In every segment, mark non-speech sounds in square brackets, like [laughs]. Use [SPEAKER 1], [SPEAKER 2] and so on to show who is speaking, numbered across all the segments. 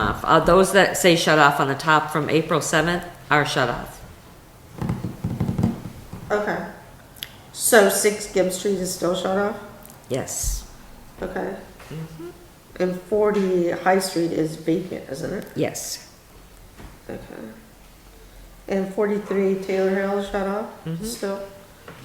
[SPEAKER 1] off. Uh, those that say shut off on the top from April seventh are shut off.
[SPEAKER 2] Okay. So six Gibbs Street is still shut off?
[SPEAKER 1] Yes,
[SPEAKER 2] Okay.
[SPEAKER 1] Mm-hmm.
[SPEAKER 2] And forty High Street is vacant, isn't it?
[SPEAKER 1] yes.
[SPEAKER 2] Okay. And forty-three Taylor Hill is shut off
[SPEAKER 1] Mm-hmm.
[SPEAKER 2] still?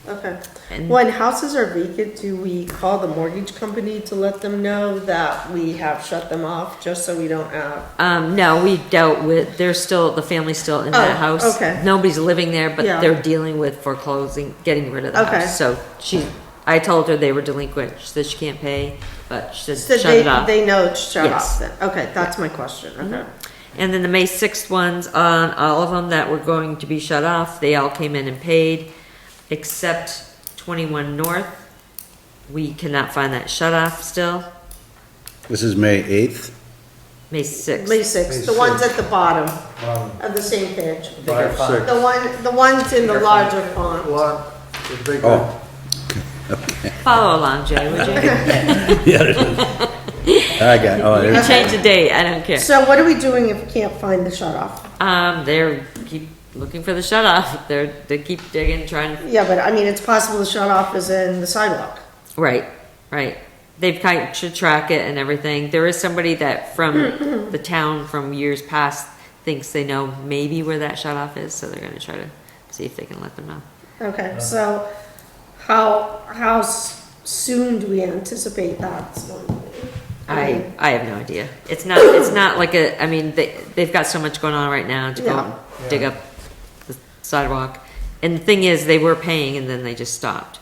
[SPEAKER 2] Okay.
[SPEAKER 1] And-
[SPEAKER 2] When houses are vacant, do we call the mortgage company to let them know that we have shut them off, just so we don't have?
[SPEAKER 1] Um, no, we dealt with, they're still, the family's still in that
[SPEAKER 2] Oh,
[SPEAKER 1] house.
[SPEAKER 2] okay.
[SPEAKER 1] Nobody's living there, but
[SPEAKER 2] Yeah.
[SPEAKER 1] they're dealing with foreclosing, getting rid of the
[SPEAKER 2] Okay.
[SPEAKER 1] house. So she, I told her they were delinquent. She said she can't pay, but she
[SPEAKER 2] So
[SPEAKER 1] said shut
[SPEAKER 2] they,
[SPEAKER 1] it off.
[SPEAKER 2] they know it's shut
[SPEAKER 1] Yes. Mm-hmm.
[SPEAKER 2] off then? Okay, that's my question, okay.
[SPEAKER 1] And then the May sixth ones, on all of them that were going to be shut off, they all came in and paid, except twenty-one North. We cannot find that shut off still,
[SPEAKER 3] This is May 8th.
[SPEAKER 1] May sixth.
[SPEAKER 2] May sixth, the ones at the bottom of the same page.
[SPEAKER 4] Five, six.
[SPEAKER 2] The one, the ones in the larger font.
[SPEAKER 4] Lot, the big one.
[SPEAKER 3] Oh, [laughs]
[SPEAKER 1] Follow along, Jay, would you?
[SPEAKER 3] yeah, it is. I got, oh,
[SPEAKER 1] You
[SPEAKER 3] there's,
[SPEAKER 1] change the date, I don't care.
[SPEAKER 2] So what are we doing if we can't find the shut off?
[SPEAKER 1] Um, they're, keep looking for the shut off, they're, they keep digging, trying,
[SPEAKER 2] Yeah, but I mean, it's possible the shut off is in the sidewalk.
[SPEAKER 1] right, right. They've kind of to track it and everything. There is somebody that from the town from years past thinks they know maybe where that shut off is, so they're gonna try to see if they can let them know.
[SPEAKER 2] Okay, so how, how s- soon do we anticipate that?
[SPEAKER 1] I, I have no idea. It's not, it's not like a, I mean, they, they've got so much going on right now to go and dig up the sidewalk. And the thing is, they were paying and then they just stopped.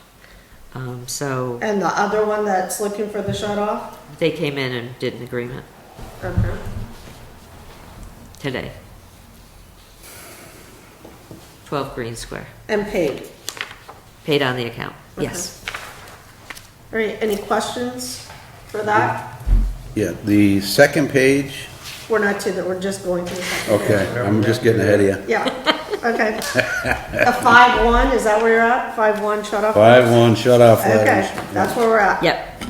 [SPEAKER 1] Um, so
[SPEAKER 2] And the other one that's looking for the shut off?
[SPEAKER 1] they came in and did an agreement
[SPEAKER 2] Okay.
[SPEAKER 1] today. Twelve Green Square,
[SPEAKER 2] And paid.
[SPEAKER 1] paid on the account, yes.
[SPEAKER 2] All right, any questions for that?
[SPEAKER 3] yeah, the second page,
[SPEAKER 2] We're not to that, we're just going to the second.
[SPEAKER 3] okay, I'm just getting ahead of you.
[SPEAKER 2] Yeah, okay. A five one, is that where you're at? Five one shut off?
[SPEAKER 3] 5-1 shut-off
[SPEAKER 2] Okay,
[SPEAKER 3] letters.
[SPEAKER 2] that's where we're at.
[SPEAKER 1] Yep.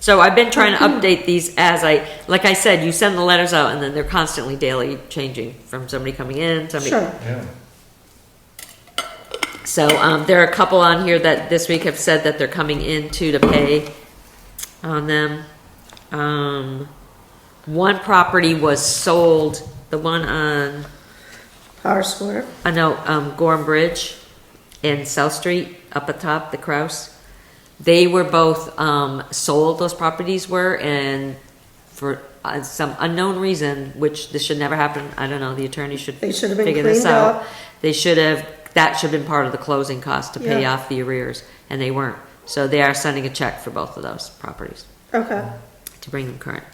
[SPEAKER 1] So I've been trying to update these as I, like I said, you send the letters out and then they're constantly daily changing from somebody coming in, somebody.
[SPEAKER 2] Sure,
[SPEAKER 4] Yeah.
[SPEAKER 1] So, um, there are a couple on here that this week have said that they're coming in to to pay on them. Um, one property was sold, the one on,
[SPEAKER 2] Power Square.
[SPEAKER 1] I know, um, Gorham Bridge and South Street, up atop the Kraus. They were both, um, sold, those properties were, and for uh, some unknown reason, which this should never happen, I don't know, the attorney should
[SPEAKER 2] They should have been
[SPEAKER 1] figure this
[SPEAKER 2] cleaned
[SPEAKER 1] out.
[SPEAKER 2] up.
[SPEAKER 1] They should have, that should have been part of the closing cost to pay
[SPEAKER 2] Yeah.
[SPEAKER 1] off the arrears, and they weren't. So they are sending a check for both of those properties
[SPEAKER 2] Okay,
[SPEAKER 1] to bring them current.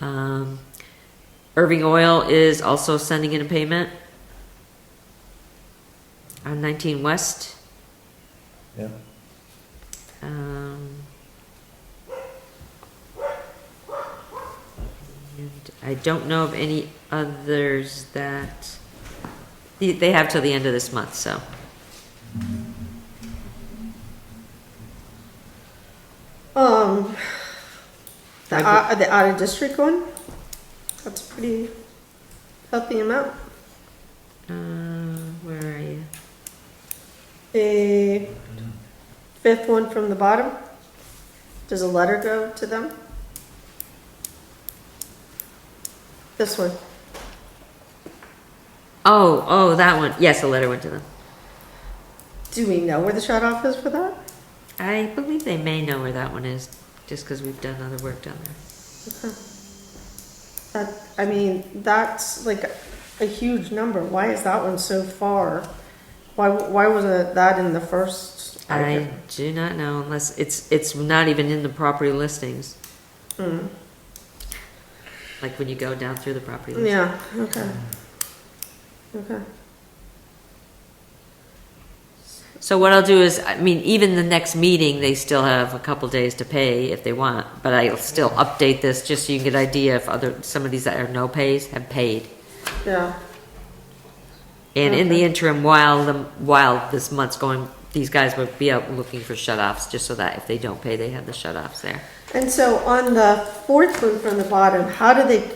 [SPEAKER 1] Um, Irving Oil is also sending in a payment on 19 West.
[SPEAKER 4] Yeah.
[SPEAKER 1] Um, and I don't know of any others that, they- they have till the end of this month, so.
[SPEAKER 2] um, the,
[SPEAKER 1] I've-
[SPEAKER 2] out- the out of district one, that's a pretty healthy amount.
[SPEAKER 1] Uh, where are you?
[SPEAKER 2] The fifth one from the bottom, does a letter go to them? This one,
[SPEAKER 1] Oh, oh, that one, yes, a letter went to them.
[SPEAKER 2] do we know where the shut off is for that?
[SPEAKER 1] I believe they may know where that one is, just because we've done other work down there.
[SPEAKER 2] That, I mean, that's like a huge number, why is that one so far? Why, why wasn't that in the first?
[SPEAKER 1] I do not know unless, it's, it's not even in the property listings. Like when you go down through the property list.
[SPEAKER 2] Yeah, okay. Okay,
[SPEAKER 1] So what I'll do is, I mean, even the next meeting, they still have a couple days to pay if they want, but I'll still update this just so you can get an idea if other, some of these that are no pays have paid.
[SPEAKER 2] yeah,
[SPEAKER 1] And in the interim, while the, while this month's going, these guys would be out looking for shut-offs, just so that if they don't pay, they have the shut-offs there.
[SPEAKER 2] and so on the fourth one from the bottom, how do they